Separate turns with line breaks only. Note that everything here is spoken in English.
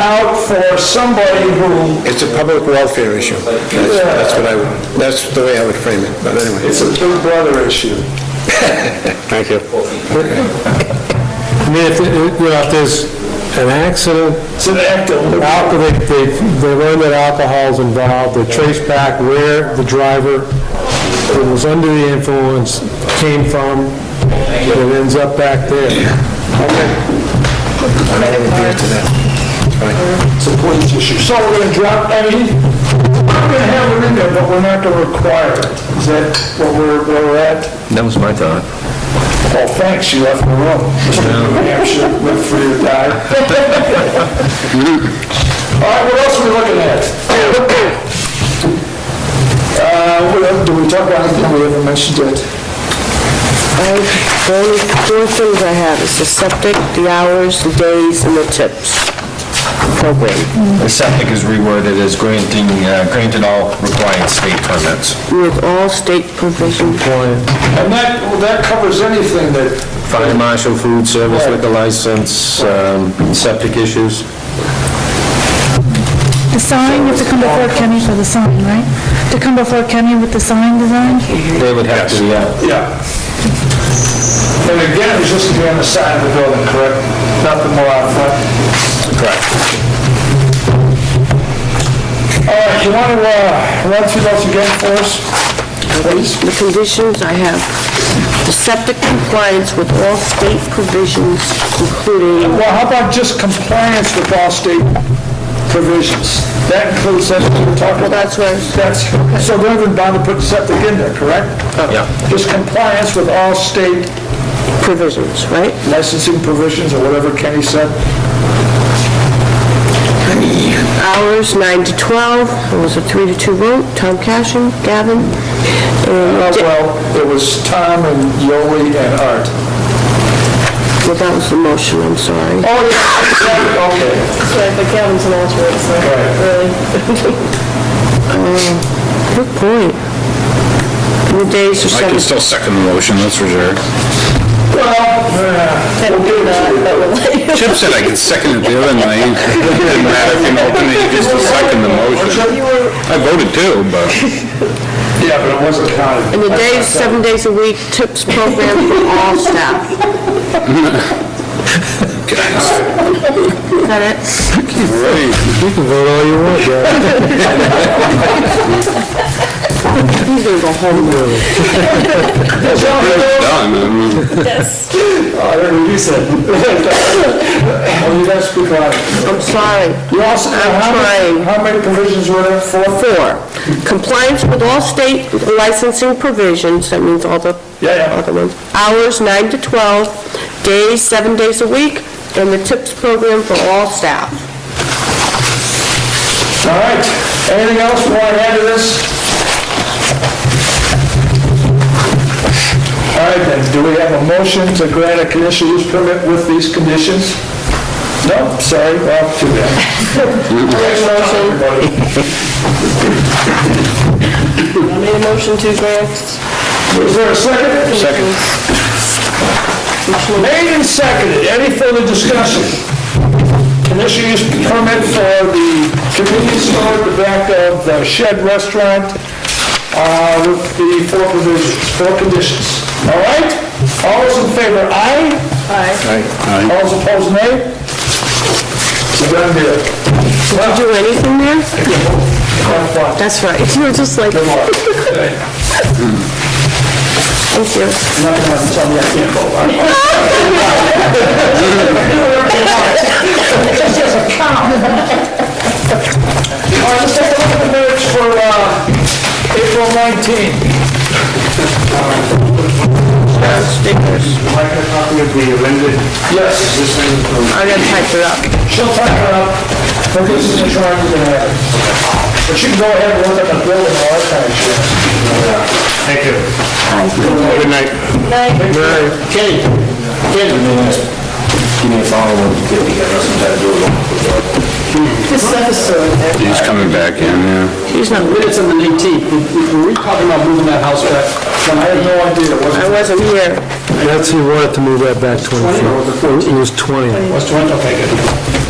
out for somebody who,
It's a public welfare issue. That's that's what I, would- that's the way I would frame it, but anyway.
it's a big brother issue.
Thank you.
I mean, if, if- you know, if there's an accident,
It's an act of
alcohol, they, they, they learn that alcohol's involved, they trace back where the driver who was under the influence came from, it ends up back there.
I'm not even near to that.
It's a police issue. So we're gonna drop, I mean, we're gonna have it in there, but we're not gonna require it. Is that what we're, where we're at?
That was my thought.
Well, thanks, you left the room. New Hampshire, went free to die. All right, what else are we looking at? Uh, what else- do we talk about anything we haven't mentioned yet?
I, the only four things I have is the septic, the hours, the days, and the tips program
The septic is reworded as granting, uh, granted all required state permits.
with all state provision.
And that, well, that covers anything that,
Fire marshal, food service, liquor license, um, septic issues.
The sign, you have to come before Kenny for the sign, right? To come before Kenny with the sign design?
They would have to, yeah.
yeah. And again, it's just to be on the side of the building, correct? Nothing more out front? Correct. All right, you want to, uh, run through those again for us, please?
The conditions I have, the septic compliance with all state provisions, including
Well, how about just compliance with all state provisions? That includes that we're talking about?
That's right.
That's, so they're even bound to put septic in there, correct?
Oh.
Yeah.
Just compliance with all state
provisions, right?
licensing provisions or whatever Kenny said?
Hours, nine to 12, it was a three to two vote, Tom Cashin, Gavin,
Uh,
and, di-
Well, it was Tom and Yoli and Art.
well, that was the motion, I'm sorry.
Oh, yeah, okay.
but Gavin's an alternate, so, Um, Good point. And The days
I
are seven
can still second the motion, that's for sure.
Well, uh, we'll give it to you.
Chip said I could second it the other night. It Didn't matter if you open it, you just second the motion. I voted too, but
Yeah, but it wasn't counted.
And the days, seven days a week, tips program for all staff. Is that it?
You can vote all you want, Gary.
He's gonna go home now.
done. I mean,
Oh, I heard what you said. Oh, you guys speak loud.
I'm sorry.
You also, how many,
trying.
how many provisions were there? Four?
Four, compliance with all state licensing provisions, that means all the
Yeah, yeah.
other ones. Hours, nine to 12, days, seven days a week, and the tips program for all staff.
All right, anything else we want to add to this? All right, then, do we have a motion to grant a conditional use permit with these conditions? No, sorry, well, too bad. Next motion.
I made a motion to grant
Is there a second?
Second.
Made and seconded, any further discussion? Conditional use permit for the convenience store at the back of the shed restaurant uh, with the four provisions, four conditions. All right? All those in favor, aye? Aye. All those opposed, nay? It's a done deal.
Did you do anything there?
Have fun.
That's right. You were just like,
Good luck.
thank you.
Not gonna tell me I can't vote. all right? All right, let's take a look at the minutes for uh, April 19.
Like a copy of the amended
Yes,
decision from
I'm gonna type it up.
she'll type it up, but this is the charge we're gonna have. But you can go ahead and look at the bill and all that kind of shit.
Thank you.
Good night. Good night. Kenny, Kenny.
Give me a follow-up.
he's coming back in, yeah.
He's not,
Minutes on the 19th, were we talking about moving that house back? I have no idea, was
I wasn't here.
That's, he wanted to move that back 20 feet. It was 20.
Was 20, okay, good.